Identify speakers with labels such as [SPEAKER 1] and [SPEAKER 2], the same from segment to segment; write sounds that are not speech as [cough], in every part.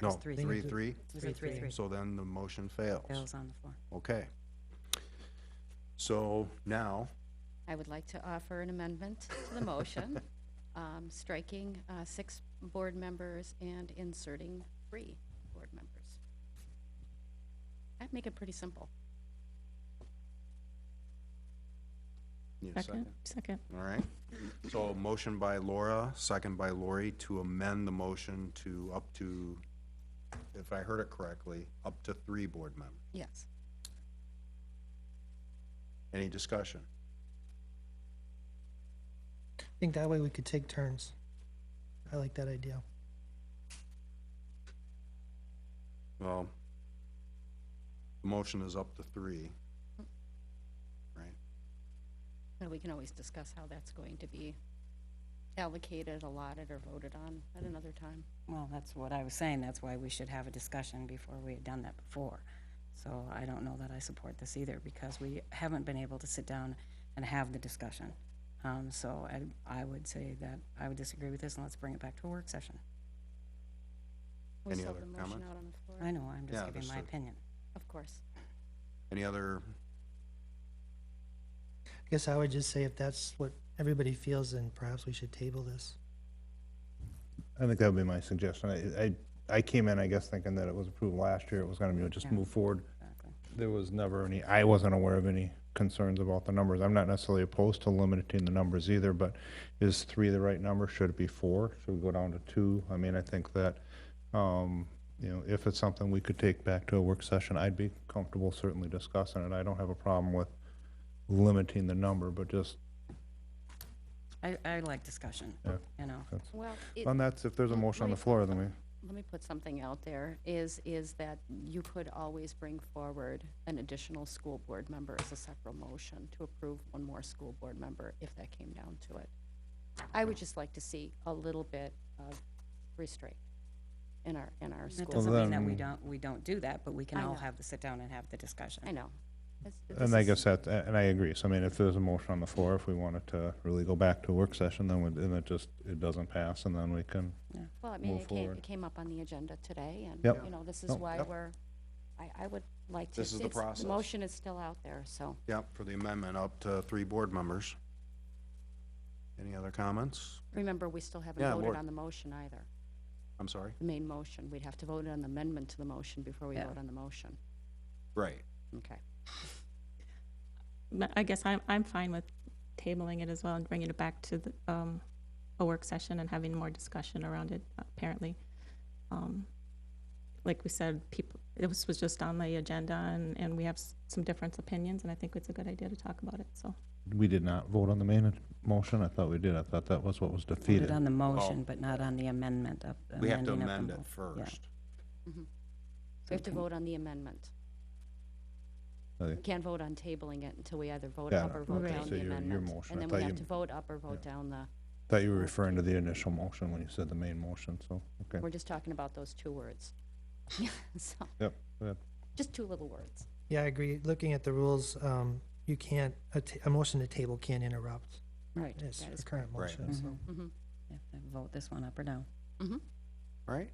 [SPEAKER 1] No,
[SPEAKER 2] It's three,
[SPEAKER 1] three, three,
[SPEAKER 2] Three, three, three.
[SPEAKER 1] so then the motion fails.
[SPEAKER 2] Bill's on the floor.
[SPEAKER 1] Okay. So now,
[SPEAKER 3] I would like to offer an amendment
[SPEAKER 1] [laughs]
[SPEAKER 3] to the motion, um, striking uh, six board members and inserting three board members. I'd make it pretty simple.
[SPEAKER 1] need a
[SPEAKER 4] Second,
[SPEAKER 1] second?
[SPEAKER 4] second.
[SPEAKER 1] All right. So motion by Laura, second by Lori to amend the motion to up to, if I heard it correctly, up to three board members.
[SPEAKER 3] Yes.
[SPEAKER 1] Any discussion?
[SPEAKER 5] I think that way we could take turns. I like that idea.
[SPEAKER 1] Well, the motion is up to three. Right?
[SPEAKER 3] And we can always discuss how that's going to be allocated, allotted, or voted on at another time.
[SPEAKER 2] Well, that's what I was saying. That's why we should have a discussion before we had done that before. So I don't know that I support this either because we haven't been able to sit down and have the discussion. Um, so I, I would say that I would disagree with this and let's bring it back to a work session.
[SPEAKER 3] We
[SPEAKER 1] Any
[SPEAKER 3] still have
[SPEAKER 1] other
[SPEAKER 3] the motion
[SPEAKER 1] comments?
[SPEAKER 3] out on the
[SPEAKER 2] I
[SPEAKER 3] floor,
[SPEAKER 2] know, I'm just
[SPEAKER 1] Yeah,
[SPEAKER 2] giving
[SPEAKER 1] just
[SPEAKER 2] my
[SPEAKER 1] a-
[SPEAKER 2] opinion.
[SPEAKER 3] of course.
[SPEAKER 1] Any other,
[SPEAKER 5] I guess I would just say if that's what everybody feels, then perhaps we should table this.
[SPEAKER 6] I think that would be my suggestion. I, I, I came in, I guess, thinking that it was approved last year, it was gonna be, just
[SPEAKER 2] Yeah.
[SPEAKER 6] move forward.
[SPEAKER 2] Exactly.
[SPEAKER 6] There was never any, I wasn't aware of any concerns about the numbers. I'm not necessarily opposed to limiting the numbers either, but is three the right number? Should it be four? Should we go down to two? I mean, I think that, um, you know, if it's something we could take back to a work session, I'd be comfortable certainly discussing it. I don't have a problem with limiting the number, but just,
[SPEAKER 2] I, I like discussion,
[SPEAKER 6] Yeah.
[SPEAKER 2] you know.
[SPEAKER 6] that's,
[SPEAKER 3] Well, it,
[SPEAKER 6] and that's, if there's a motion on the floor, then we.
[SPEAKER 3] let me put something out there, is, is that you could always bring forward an additional school board member as a separate motion to approve one more school board member if that came down to it. I would just like to see a little bit of restraint in our, in our
[SPEAKER 2] That
[SPEAKER 3] school.
[SPEAKER 2] doesn't mean that we
[SPEAKER 6] then-
[SPEAKER 2] don't, we don't do that, but we can
[SPEAKER 3] I
[SPEAKER 2] all
[SPEAKER 3] know.
[SPEAKER 2] have the sit down and have the discussion.
[SPEAKER 3] I know. It's- this
[SPEAKER 6] And I
[SPEAKER 3] is-
[SPEAKER 6] guess that, and I agree. So I mean, if there's a motion on the floor, if we wanted to really go back to a work session, then, we- then it just, it doesn't pass and then we can,
[SPEAKER 3] Well, I mean,
[SPEAKER 6] move
[SPEAKER 3] it came,
[SPEAKER 6] forward.
[SPEAKER 3] it came up on the agenda today, and,
[SPEAKER 6] Yep.
[SPEAKER 3] you know, this is
[SPEAKER 6] Nope.
[SPEAKER 3] why
[SPEAKER 1] Yep.
[SPEAKER 3] we're, I, I would like to.
[SPEAKER 1] This is the
[SPEAKER 3] it's-
[SPEAKER 1] process.
[SPEAKER 3] Motion is still out there, so.
[SPEAKER 1] yeah, for the amendment, up to three board members? Any other comments?
[SPEAKER 3] Remember, we still haven't
[SPEAKER 1] Yeah,
[SPEAKER 3] voted
[SPEAKER 1] Lord.
[SPEAKER 3] on the motion either.
[SPEAKER 1] I'm sorry?
[SPEAKER 3] the main motion. We'd have to vote on the amendment to the motion before we
[SPEAKER 2] Yeah.
[SPEAKER 3] vote on the motion.
[SPEAKER 1] Right.
[SPEAKER 3] Okay.
[SPEAKER 4] But I guess I'm, I'm fine with tabling it as well and bringing it back to the, um, a work session and having more discussion around it, apparently. Um, Like we said, people, this was just on the agenda and, and we have s- some different opinions and I think it's a good idea to talk about it, so.
[SPEAKER 6] we did not vote on the main motion. I thought we did. I thought that was what was
[SPEAKER 2] Put it
[SPEAKER 6] defeated.
[SPEAKER 2] on the motion, but not on the amendment of.
[SPEAKER 1] We have
[SPEAKER 2] amending
[SPEAKER 1] to
[SPEAKER 2] of the
[SPEAKER 1] amend it
[SPEAKER 2] mo- yeah.
[SPEAKER 1] first.
[SPEAKER 3] We have to
[SPEAKER 2] Okay.
[SPEAKER 3] vote on the amendment.
[SPEAKER 6] Okay.
[SPEAKER 3] We can't vote on tabling it until we either vote
[SPEAKER 6] Got
[SPEAKER 3] up
[SPEAKER 6] it.
[SPEAKER 3] or vote
[SPEAKER 4] Okay.
[SPEAKER 3] down
[SPEAKER 6] So
[SPEAKER 3] the
[SPEAKER 6] your- your
[SPEAKER 3] amendment.
[SPEAKER 6] motion.
[SPEAKER 3] And
[SPEAKER 6] I
[SPEAKER 3] then
[SPEAKER 6] thought
[SPEAKER 3] we have
[SPEAKER 6] you-
[SPEAKER 3] to vote up or vote down the,
[SPEAKER 6] Thought you were referring to the initial motion when you said the main motion, so, okay.
[SPEAKER 3] we're just talking about those two words. [laughs] So,
[SPEAKER 6] Yep, yep.
[SPEAKER 3] just two little words.
[SPEAKER 5] Yeah, I agree. Looking at the rules, um, you can't, a, ta- a motion to table can't interrupt
[SPEAKER 3] Right.
[SPEAKER 5] this
[SPEAKER 3] That is
[SPEAKER 5] current
[SPEAKER 1] Right.
[SPEAKER 5] motion, so.
[SPEAKER 2] Mhm.
[SPEAKER 3] Mhm.
[SPEAKER 2] You have to Vote this one up or down.
[SPEAKER 3] Mhm.
[SPEAKER 1] All right.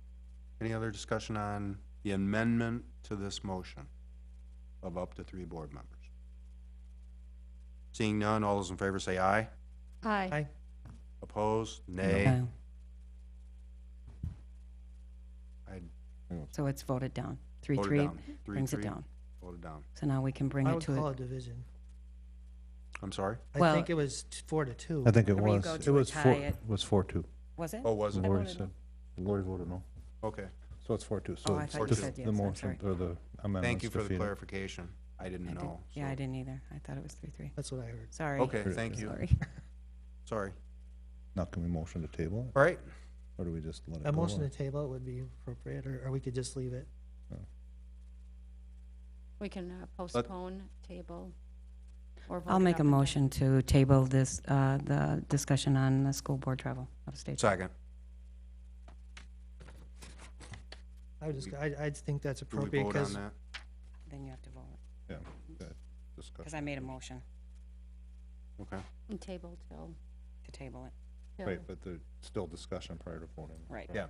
[SPEAKER 1] Any other discussion on the amendment to this motion of up to three board members? Seeing none, all those in favor say aye.
[SPEAKER 3] Aye.
[SPEAKER 5] Aye.
[SPEAKER 1] Opposed? Nay.
[SPEAKER 2] Okay.
[SPEAKER 1] I
[SPEAKER 2] So it's voted down. Three,
[SPEAKER 1] voted
[SPEAKER 2] three,
[SPEAKER 1] down. Three,
[SPEAKER 2] brings it
[SPEAKER 1] three,
[SPEAKER 2] down.
[SPEAKER 1] Voted down.
[SPEAKER 2] So now we can bring
[SPEAKER 5] I
[SPEAKER 2] it
[SPEAKER 5] would
[SPEAKER 2] to
[SPEAKER 5] call
[SPEAKER 2] a,
[SPEAKER 5] it division.
[SPEAKER 1] I'm sorry?
[SPEAKER 5] I
[SPEAKER 2] Well-
[SPEAKER 5] think it was t- four to two.
[SPEAKER 6] I think it
[SPEAKER 2] Whenever you
[SPEAKER 6] was,
[SPEAKER 2] go
[SPEAKER 6] it
[SPEAKER 2] to a
[SPEAKER 6] was four,
[SPEAKER 2] tie,
[SPEAKER 6] it
[SPEAKER 2] it-
[SPEAKER 6] was four two.
[SPEAKER 2] was it?
[SPEAKER 1] Oh, was it?
[SPEAKER 6] Lori
[SPEAKER 2] voted
[SPEAKER 6] said, Lori voted no.
[SPEAKER 1] Okay.
[SPEAKER 6] So it's four two,
[SPEAKER 2] Oh,
[SPEAKER 6] so
[SPEAKER 2] I
[SPEAKER 6] it's
[SPEAKER 2] thought
[SPEAKER 1] you
[SPEAKER 6] just
[SPEAKER 1] said
[SPEAKER 2] yes,
[SPEAKER 6] the
[SPEAKER 2] I'm
[SPEAKER 6] motion
[SPEAKER 2] sorry.
[SPEAKER 6] or the amendment
[SPEAKER 1] Thank you for the
[SPEAKER 6] defeated.
[SPEAKER 1] clarification. I
[SPEAKER 2] I
[SPEAKER 1] didn't
[SPEAKER 2] did-
[SPEAKER 1] know.
[SPEAKER 2] Yeah,
[SPEAKER 1] so-
[SPEAKER 2] I didn't either. I thought it was three, three.
[SPEAKER 5] That's what I heard.
[SPEAKER 2] Sorry.
[SPEAKER 1] Okay, thank you.
[SPEAKER 2] Sorry.
[SPEAKER 1] Sorry.
[SPEAKER 6] Now can we motion to table it,
[SPEAKER 1] All right.
[SPEAKER 6] or do we just let it go?
[SPEAKER 5] A motion
[SPEAKER 6] or-
[SPEAKER 5] to table would be appropriate, or, or we could just leave it.
[SPEAKER 3] We can uh, postpone, table, or vote.
[SPEAKER 2] I'll
[SPEAKER 3] it
[SPEAKER 2] make
[SPEAKER 3] up
[SPEAKER 2] a
[SPEAKER 3] and down.
[SPEAKER 2] motion to table this, uh, the discussion on the school board travel out of state.
[SPEAKER 1] Second.
[SPEAKER 5] I would just, I, I think that's
[SPEAKER 1] Do we
[SPEAKER 5] appropriate,
[SPEAKER 1] vote on
[SPEAKER 5] because
[SPEAKER 1] that?
[SPEAKER 2] Then you have to vote,
[SPEAKER 6] Yeah, that discussion.
[SPEAKER 2] because I made a motion
[SPEAKER 1] Okay.
[SPEAKER 3] And Table till,
[SPEAKER 2] to table it.
[SPEAKER 3] till
[SPEAKER 6] Right, but there's still discussion prior to voting.
[SPEAKER 2] Right.
[SPEAKER 1] Yeah.